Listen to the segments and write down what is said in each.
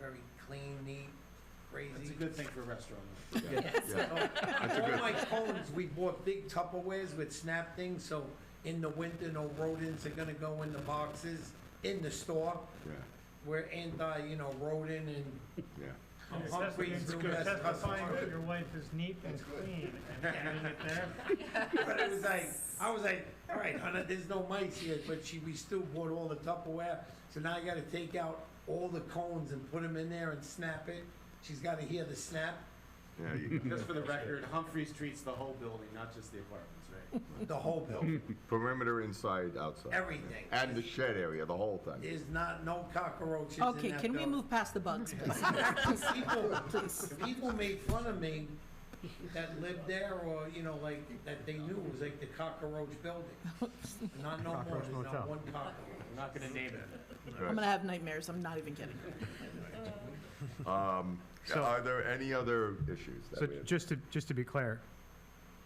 very clean, neat, crazy. It's a good thing for a restaurant. Yeah. That's a All good- my cones, we bought big Tupperwares with snap things, so in the winter, no rodents are gonna go in the boxes in the store. Yeah, We're anti, you know, rodent and yeah. I'm It's hungry, testifying- it's it's good. Testifying that your wife is neat and clean and getting it there. But it was like, I was like, all right, honey, there's no mice here, but she, we still bought all the Tupperware. So now I gotta take out all the cones and put them in there and snap it. She's gotta hear the snap, Yeah, you- Just for the record, Humphreys treats the whole building, not just the apartments, right? the whole building, perimeter inside, outside. everything. And the shed area, the whole thing. There's not, no cockroaches in Okay, that can we building. move past the bugs, please? people, people made fun of me that lived there or, you know, like, that they knew was like the cockroach building. Not no more, Cockroach than not motel. one cockroach. We're not gonna name it. I'm gonna Right. have nightmares, I'm not even kidding. So- Are there any other issues So that we have? just to, just to be clear,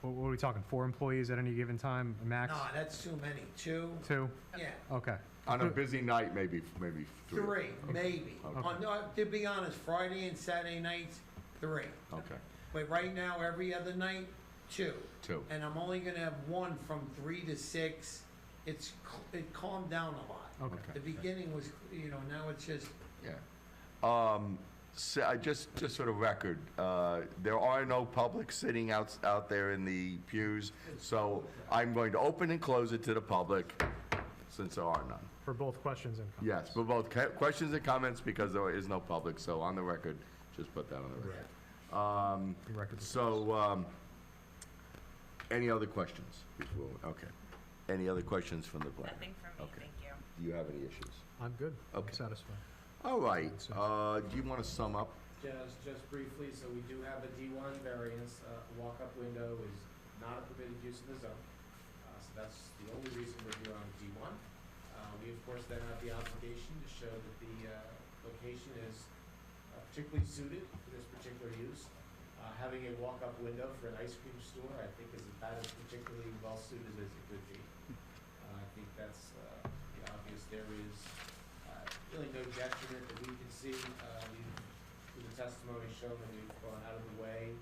what what are we talking, four employees at any given time, max? Nah, that's too many, two, Two? yeah, Okay. On a busy night, maybe, maybe three. three, maybe. On, no, to be honest, Friday and Saturday nights, three. Okay, But right now, every other night, two. two. And I'm only gonna have one from three to six. It's, c- it calmed down a lot. Okay. The beginning was, you know, now it's just Yeah. Um, so I just, just for the record, uh, there are no public sitting out, out there in the pews, so I'm going to open and close it to the public, since there are none. For both questions and comments. Yes, for both ca- questions and comments, because there is no public, so on the record, just put that on the record. Um, The record reflects. so, um, any other questions? before- Okay. Any other questions from the board? Nothing from me, Okay. thank you. Do you have any issues? I'm good. I'm Okay. satisfied. All right, uh, do you want to sum up? Just, just briefly, so we do have a D1 variance, uh, a walk-up window is not a permitted use in the zone. Uh, So that's the only reason we're here on D1. Uh, We, of course, then have the obligation to show that the uh, location is uh, particularly suited for this particular use. Uh, Having a walk-up window for an ice cream store, I think is about as particularly well-suited as it could be. Uh, I think that's uh, the obvious. There is uh, really no detriment that we can see. Uh, We've through the testimony shown that we've gone out of the way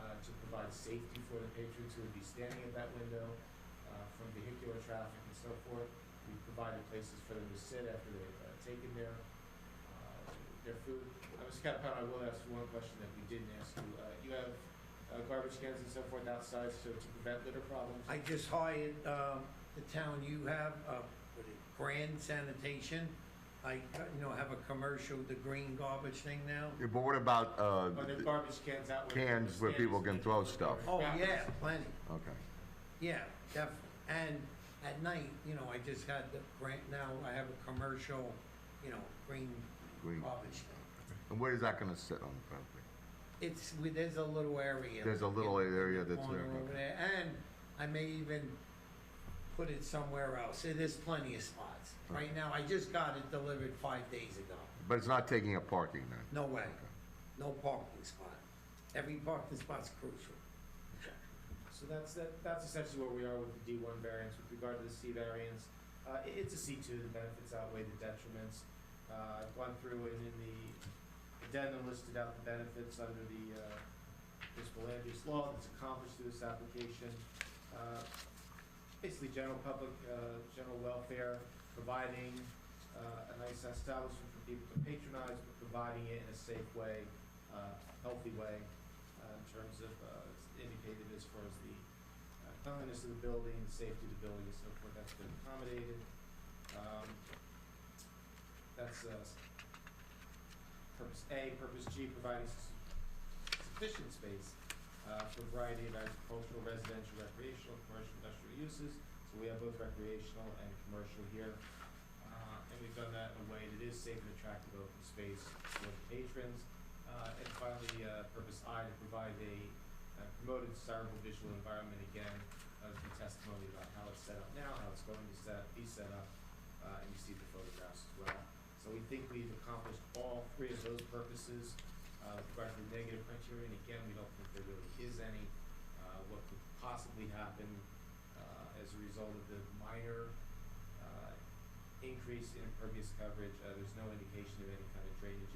uh, to provide safety for the patrons who would be standing at that window uh, from vehicular traffic and so forth. We've provided places for them to sit after they've uh, taken their, uh, their food. I was kind of, I will ask you one question that we didn't ask you. Uh, You have uh, garbage cans and so forth outside, so to prevent litter problems? I just hired, um, the town you have, uh, what is it, Grand Sanitation. I, you know, have a commercial, the green garbage thing now. Yeah, But what about, uh, Are there garbage cans out where? Cans people where stand? people can throw stuff. Oh, yeah, plenty, okay. yeah, definitely. And at night, you know, I just had the grant, now I have a commercial, you know, green Green. garbage thing. Uh, And where is that gonna sit on the property? It's, we- there's a little area. There's a little in the area that's corner there, over there, And I may even put it somewhere else. There's plenty of spots. Right now, I just got it delivered five days ago. But it's not taking up parking then? No way. No parking spot. Every parking spot's crucial. So that's, that, that's essentially where we are with the D one variance. With regard to the C variance, uh, it, it's a C two, the benefits outweigh the detriments. Uh, I've gone through and in the addendum listed out the benefits under the, uh, municipal land use law that's accomplished through this application. Uh, Basically, general public, uh, general welfare, providing, uh, a nice establishment for people to patronize, but providing it in a safe way, uh, healthy way uh, in terms of, uh, it's indicated as far as the uh, cleanliness of the building, the safety of the building, and so forth, that's been accommodated. Um, That's, uh, s- purpose A, purpose G, providing s- sufficient space, uh, for a variety of agricultural, residential, recreational, commercial, industrial uses. So we have both recreational and commercial here. Uh, and we've done that in a way that is safe and attractive open space for the patrons. Uh, and finally, uh, purpose I, to provide a uh, promoted desirable visual environment again, of the testimony about how it's set up now, how it's going to set, be set up, uh, and you see the photographs as well. So we think we've accomplished all three of those purposes, uh, with regard to the negative criteria, and again, we don't think there really is any. Uh, what could possibly happen, uh, as a result of the minor, uh, increase in impervious coverage, uh, there's no indication of any kind of drainage